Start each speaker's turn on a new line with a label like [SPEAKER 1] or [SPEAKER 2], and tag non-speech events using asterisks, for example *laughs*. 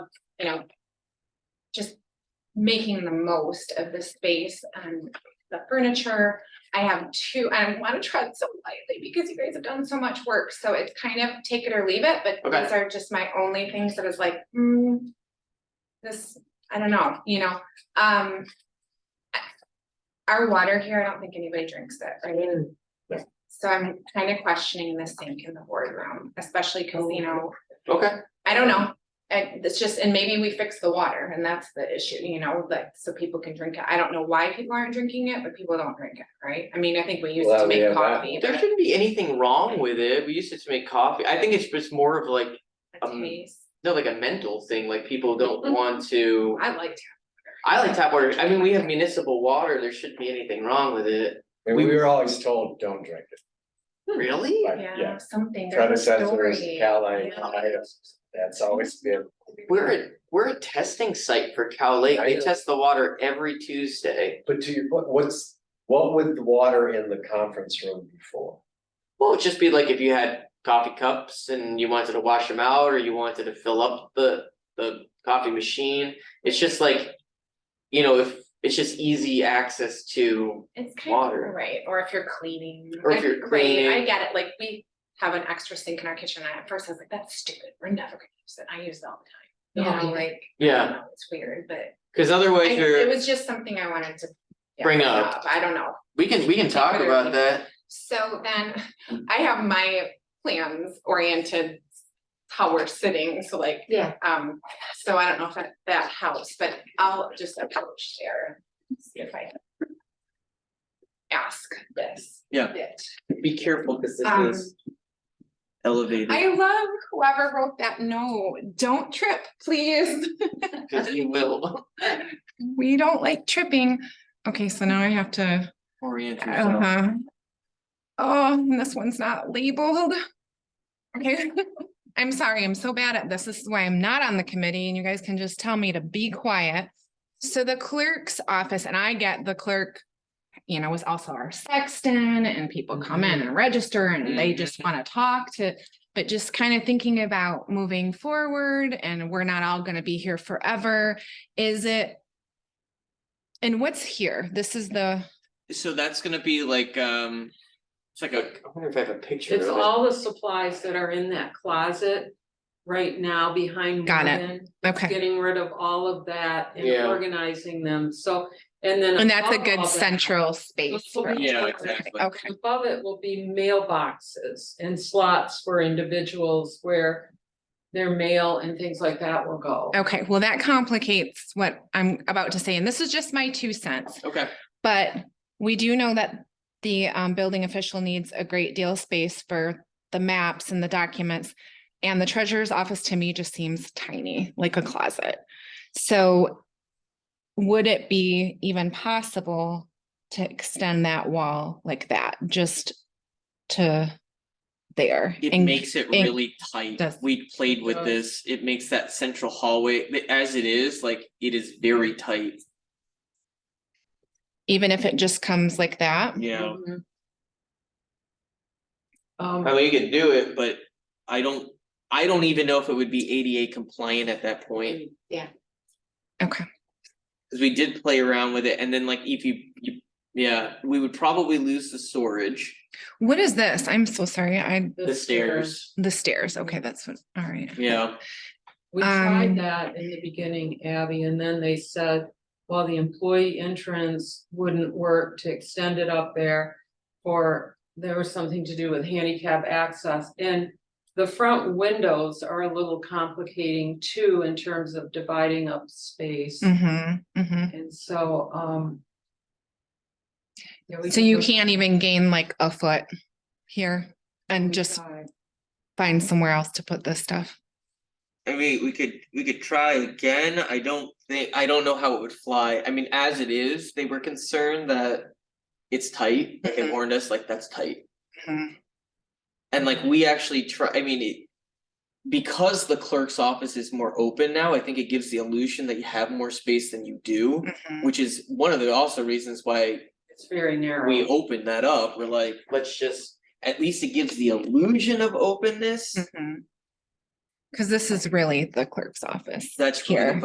[SPEAKER 1] you know. Just making the most of the space and the furniture. I have two, I want to tread so lightly because you guys have done so much work, so it's kind of take it or leave it, but
[SPEAKER 2] Okay.
[SPEAKER 1] these are just my only things that is like, hmm. This, I don't know, you know, um. Our water here, I don't think anybody drinks it, right? So I'm kind of questioning the sink in the boardroom, especially because, you know,
[SPEAKER 2] Okay,
[SPEAKER 1] I don't know. And it's just, and maybe we fix the water and that's the issue, you know, like, so people can drink it. I don't know why people aren't drinking it, but people don't drink it, right? I mean, I think we use it
[SPEAKER 3] Well,
[SPEAKER 1] to
[SPEAKER 3] we
[SPEAKER 1] make
[SPEAKER 3] have that.
[SPEAKER 1] coffee.
[SPEAKER 2] there
[SPEAKER 1] but
[SPEAKER 2] shouldn't be anything wrong with it, we used it to make coffee, I think it's just more of like,
[SPEAKER 1] a
[SPEAKER 2] um,
[SPEAKER 1] taste.
[SPEAKER 2] no, like a mental thing, like people don't want to.
[SPEAKER 1] I like to.
[SPEAKER 2] I like tap water, I mean, we have municipal water, there shouldn't be anything wrong with it,
[SPEAKER 3] And we were always told, don't drink it,
[SPEAKER 2] really?
[SPEAKER 3] but
[SPEAKER 1] yeah,
[SPEAKER 3] yeah,
[SPEAKER 1] something, there's a
[SPEAKER 3] predecessors,
[SPEAKER 1] story.
[SPEAKER 3] Cali,
[SPEAKER 1] Yeah.
[SPEAKER 3] that's always been.
[SPEAKER 2] We're a, we're a testing site for Cal Lake, they test the water every Tuesday.
[SPEAKER 3] But to your, point, what's, what would the water in the conference room be for?
[SPEAKER 2] Well, it'd just be like if you had coffee cups and you wanted to wash them out, or you wanted to fill up the, the coffee machine, it's just like. You know, if, it's just easy access to,
[SPEAKER 1] It's kind of,
[SPEAKER 2] Water.
[SPEAKER 1] right, or if you're cleaning.
[SPEAKER 2] Or if
[SPEAKER 1] I-
[SPEAKER 2] you're
[SPEAKER 1] right, I
[SPEAKER 2] cleaning.
[SPEAKER 1] get it, like, we have an extra sink in our kitchen. and At first I was like, that's stupid. We're never gonna use it. I use it all the time. You know, like, I don't
[SPEAKER 2] yeah,
[SPEAKER 1] know, it's weird, but
[SPEAKER 2] cause
[SPEAKER 1] I,
[SPEAKER 2] otherwise
[SPEAKER 1] it
[SPEAKER 2] you're,
[SPEAKER 1] was just something I wanted to. yeah,
[SPEAKER 2] Bring up.
[SPEAKER 1] I don't know.
[SPEAKER 2] we can, we can talk
[SPEAKER 1] Whether you-
[SPEAKER 2] about that,
[SPEAKER 1] So then I have my plans oriented how we're sitting, so like.
[SPEAKER 4] Yeah.
[SPEAKER 1] Um, so I don't know if that, that helps, but I'll just approach there, and see if I can. Ask this.
[SPEAKER 5] Yeah.
[SPEAKER 1] bit.
[SPEAKER 5] Be careful, cause
[SPEAKER 1] Um,
[SPEAKER 5] this is elevated.
[SPEAKER 1] I love whoever wrote that, no, don't trip, please,
[SPEAKER 2] cause you will
[SPEAKER 1] we don't like tripping. Okay, so now I have to.
[SPEAKER 5] orient yourself.
[SPEAKER 1] Uh-huh. Oh, and this one's not labeled. Okay, *laughs* I'm sorry, I'm so bad at this. This is why I'm not on the committee and you guys can just tell me to be quiet. So the clerk's office, and I get the clerk, you know, was also our sexton and people come in and register and they just want to talk to, but just kind of thinking about moving forward and we're not all going to be here forever. Is it? And what's here? This is the.
[SPEAKER 5] So that's gonna be like, um, it's like a,
[SPEAKER 2] I wonder if I have a picture of it.
[SPEAKER 4] It's all the supplies that are in that closet right now behind
[SPEAKER 1] Got it.
[SPEAKER 4] Morgan.
[SPEAKER 1] Okay.
[SPEAKER 4] Getting rid of all of that and
[SPEAKER 2] Yeah.
[SPEAKER 4] organizing them, so, and then.
[SPEAKER 1] And that's a
[SPEAKER 4] above all
[SPEAKER 1] good
[SPEAKER 4] that,
[SPEAKER 1] central space.
[SPEAKER 4] will
[SPEAKER 1] for
[SPEAKER 4] be-
[SPEAKER 1] it.
[SPEAKER 5] yeah, exactly.
[SPEAKER 1] Okay,
[SPEAKER 4] Above it will be mailboxes and slots for individuals where their mail and things like that will go.
[SPEAKER 1] okay, well, that complicates what I'm about to say, and this is just my two cents,
[SPEAKER 5] Okay,
[SPEAKER 1] but we do know that the um building official needs a great deal of space for the maps and the documents. And the treasurer's office to me just seems tiny, like a closet. So would it be even possible to extend that wall like that, just to there?
[SPEAKER 5] it
[SPEAKER 1] and-
[SPEAKER 5] makes it
[SPEAKER 1] and-
[SPEAKER 5] really tight.
[SPEAKER 1] does-
[SPEAKER 5] We played with
[SPEAKER 4] Does.
[SPEAKER 5] this. It makes that central hallway, th- as it is, like, it is very tight.
[SPEAKER 1] Even if it just comes like that?
[SPEAKER 5] Yeah.
[SPEAKER 4] Mhm.
[SPEAKER 2] I
[SPEAKER 4] Um,
[SPEAKER 2] mean, you could do it,
[SPEAKER 5] But I don't, I don't even know if it would be ADA compliant at that point.
[SPEAKER 1] Yeah. Okay.
[SPEAKER 5] Cause we did play around with it and then like if you, you, yeah, we would probably lose the storage,
[SPEAKER 1] What is this? I'm so sorry. I,
[SPEAKER 5] the stairs,
[SPEAKER 1] the stairs. Okay, that's what, all right.
[SPEAKER 5] yeah.
[SPEAKER 4] We
[SPEAKER 1] Um,
[SPEAKER 4] tried that in the beginning, Abby, and then they said, well, the employee entrance wouldn't work to extend it up there. Or there was something to do with handicap access and the front windows are a little complicating too in terms of dividing up space.
[SPEAKER 1] Mm-hmm, mm-hmm.
[SPEAKER 4] And so, um. yeah, we
[SPEAKER 1] So
[SPEAKER 4] could
[SPEAKER 1] you
[SPEAKER 4] look-
[SPEAKER 1] can't even gain like a foot here and
[SPEAKER 4] we
[SPEAKER 1] just
[SPEAKER 4] tried.
[SPEAKER 1] find somewhere else to put this stuff.
[SPEAKER 5] I mean, we could, we could try again, I don't think, I don't know how it would fly, I mean, as it is, they were concerned that. It's tight, like they
[SPEAKER 1] Mhm.
[SPEAKER 5] warned us, like that's tight, Mm-hmm.
[SPEAKER 1] Mhm.
[SPEAKER 5] and like we actually try, I mean, it. Because the clerk's office is more open now, I think it gives the illusion that you have more space than you do,
[SPEAKER 1] Mhm.
[SPEAKER 5] which is one of the also reasons why
[SPEAKER 4] It's very narrow.
[SPEAKER 5] we open that up, we're like,
[SPEAKER 1] Mm.
[SPEAKER 5] let's just. At least it gives the illusion of openness,
[SPEAKER 1] Mhm.
[SPEAKER 5] Cause this is really the clerk's office.
[SPEAKER 1] That's really the
[SPEAKER 5] Here.